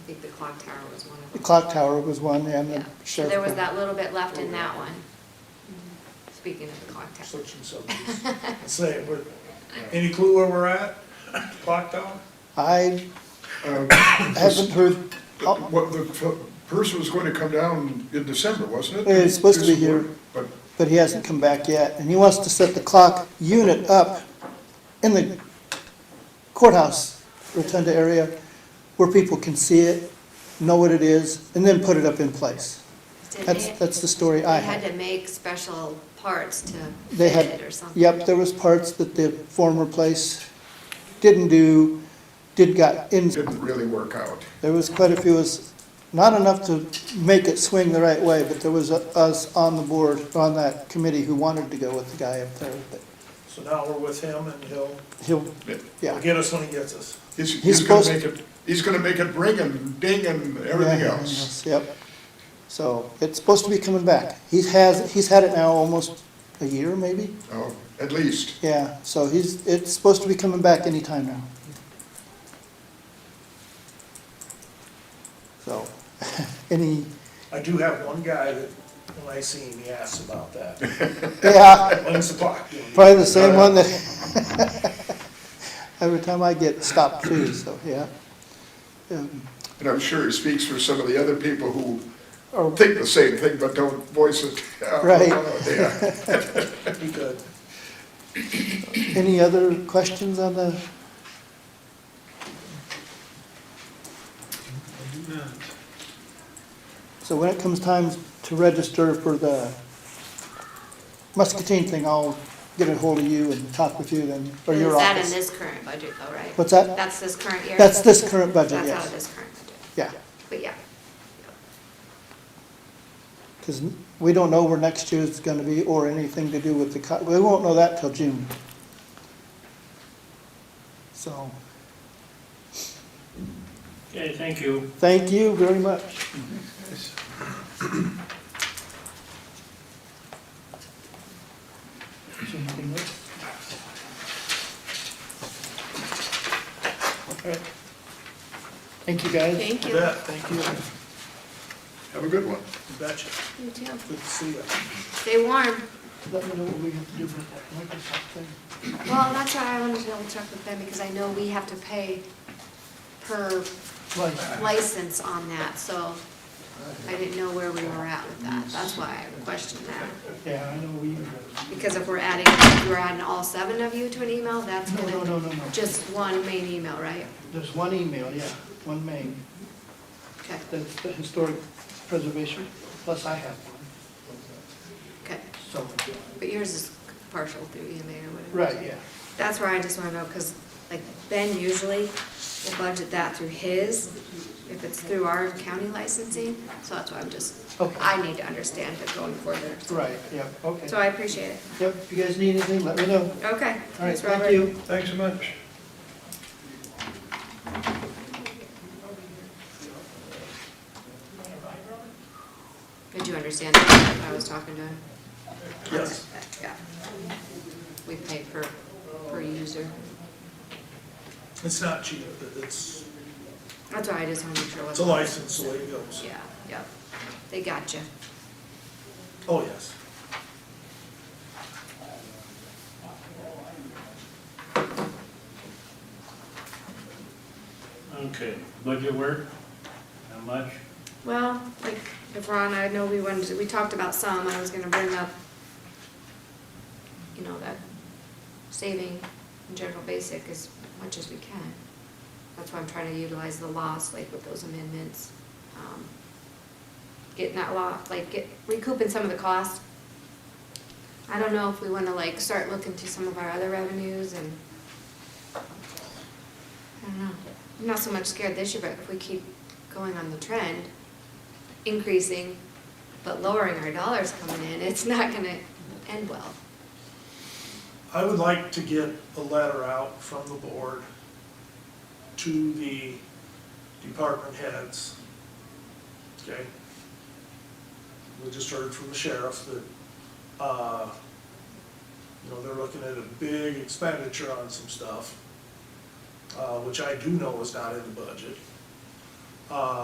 think the clock tower was one of The them. clock tower was one, and Yeah, the so sheriff. there was that little bit left in that one. Speaking of the clock tower. Section seven, just saying, we're, any clue where we're at? Clock down? I uh, haven't heard, oh, Well, the f- person was going to come down in December, wasn't it? Yeah, it's supposed to be here. But but he hasn't come back yet, and he wants to set the clock unit up in the courthouse rotunda area where people can see it, know what it is, and then put it up in place. Did That's, they- that's the story I They had had. to make special parts to They fit had, it or something. yep, there was parts that the former place didn't do, did got in. it didn't really work out. There was quite a few, it was not enough to make it swing the right way, but there was a- us on the board, on that committee who wanted to go with the guy up there, but So now we're with him and he'll, he'll, he'll yeah. get us when he gets us. He's, He's he's gonna supposed- make it, he's gonna make it ring and ding and everything Yeah, else. Yep. So it's supposed to be coming back. He has, he's had it now almost a year, maybe? Oh, at least. Yeah, so he's, it's supposed to be coming back anytime now. So, any, I do have one guy that, when I see him, he asks about that. yeah, When's the clock doing? Probably the same one that, every time I get stopped too, so, yeah. Um, And I'm sure he speaks for some of the other people who Or, think the same thing but don't voice it. out. Right. Yeah. Be good. any other questions on the, so when it comes time to register for the Muscatine thing, I'll get a hold of you and talk with you then, or Is your that in office. this current budget though, right? What's that? That's this current year? That's this current budget, That's out of yes, this current budget, yeah, but yeah. because we don't know where next year's gonna be or anything to do with the, co- we won't know that till June. So. Okay, thank you. Thank you very much. Thank you, guys. Thank You bet, thank you. You Have a good one. betcha. You too. Good to see you. Stay warm. Let me know what we have to do for that Microsoft thing. Well, that's why I wanted to double check with them, because I know we have to pay per license on that, so I didn't know where we were at with that, that's why I questioned that. Yeah, I know we. Because if we're adding, if we're adding all seven of you to an email, that's No, no, gonna, no, no, no. just one main email, right? There's one email, yeah, one main, Okay, that's the historic preservation, plus I have one, okay, so, but yours is partial through EMA or whatever. right, yeah. That's where I just wanna know, cause like Ben usually will budget that through his, if it's through our county licensing, so that's why I'm just, Okay. I need to understand it going further. Right, yeah, okay. So I appreciate it. Yep, if you guys need anything, let me know. All Okay. right, thanks, Robert. thank you. Thanks so much. Did you understand that I was talking to? him? Yes. Yeah. We pay per, per user. It's not cheap, but it's, That's why I just wanna make sure. it it's a wasn't- license, the way it goes. Yeah, yep. They got you. Oh, yes. Okay, budget work, how much? Well, like, if Ron, I know we wanted, to- we talked about some, I was gonna bring up, you know, that saving in general basic as much as we can. That's why I'm trying to utilize the loss, like with those amendments. um, Getting that loss, like get, recouping some of the cost. I don't know if we wanna like start looking to some of our other revenues and I don't know. I'm Mm-hmm. not so much scared this year, but if we keep going on the trend, increasing, but lowering our dollars coming in, it's not gonna end well. I would like to get a letter out from the board to the department heads. Okay? We just heard from the sheriff that, uh, you know, they're looking at a big expenditure on some stuff, uh, which I do know is not in the budget. Uh,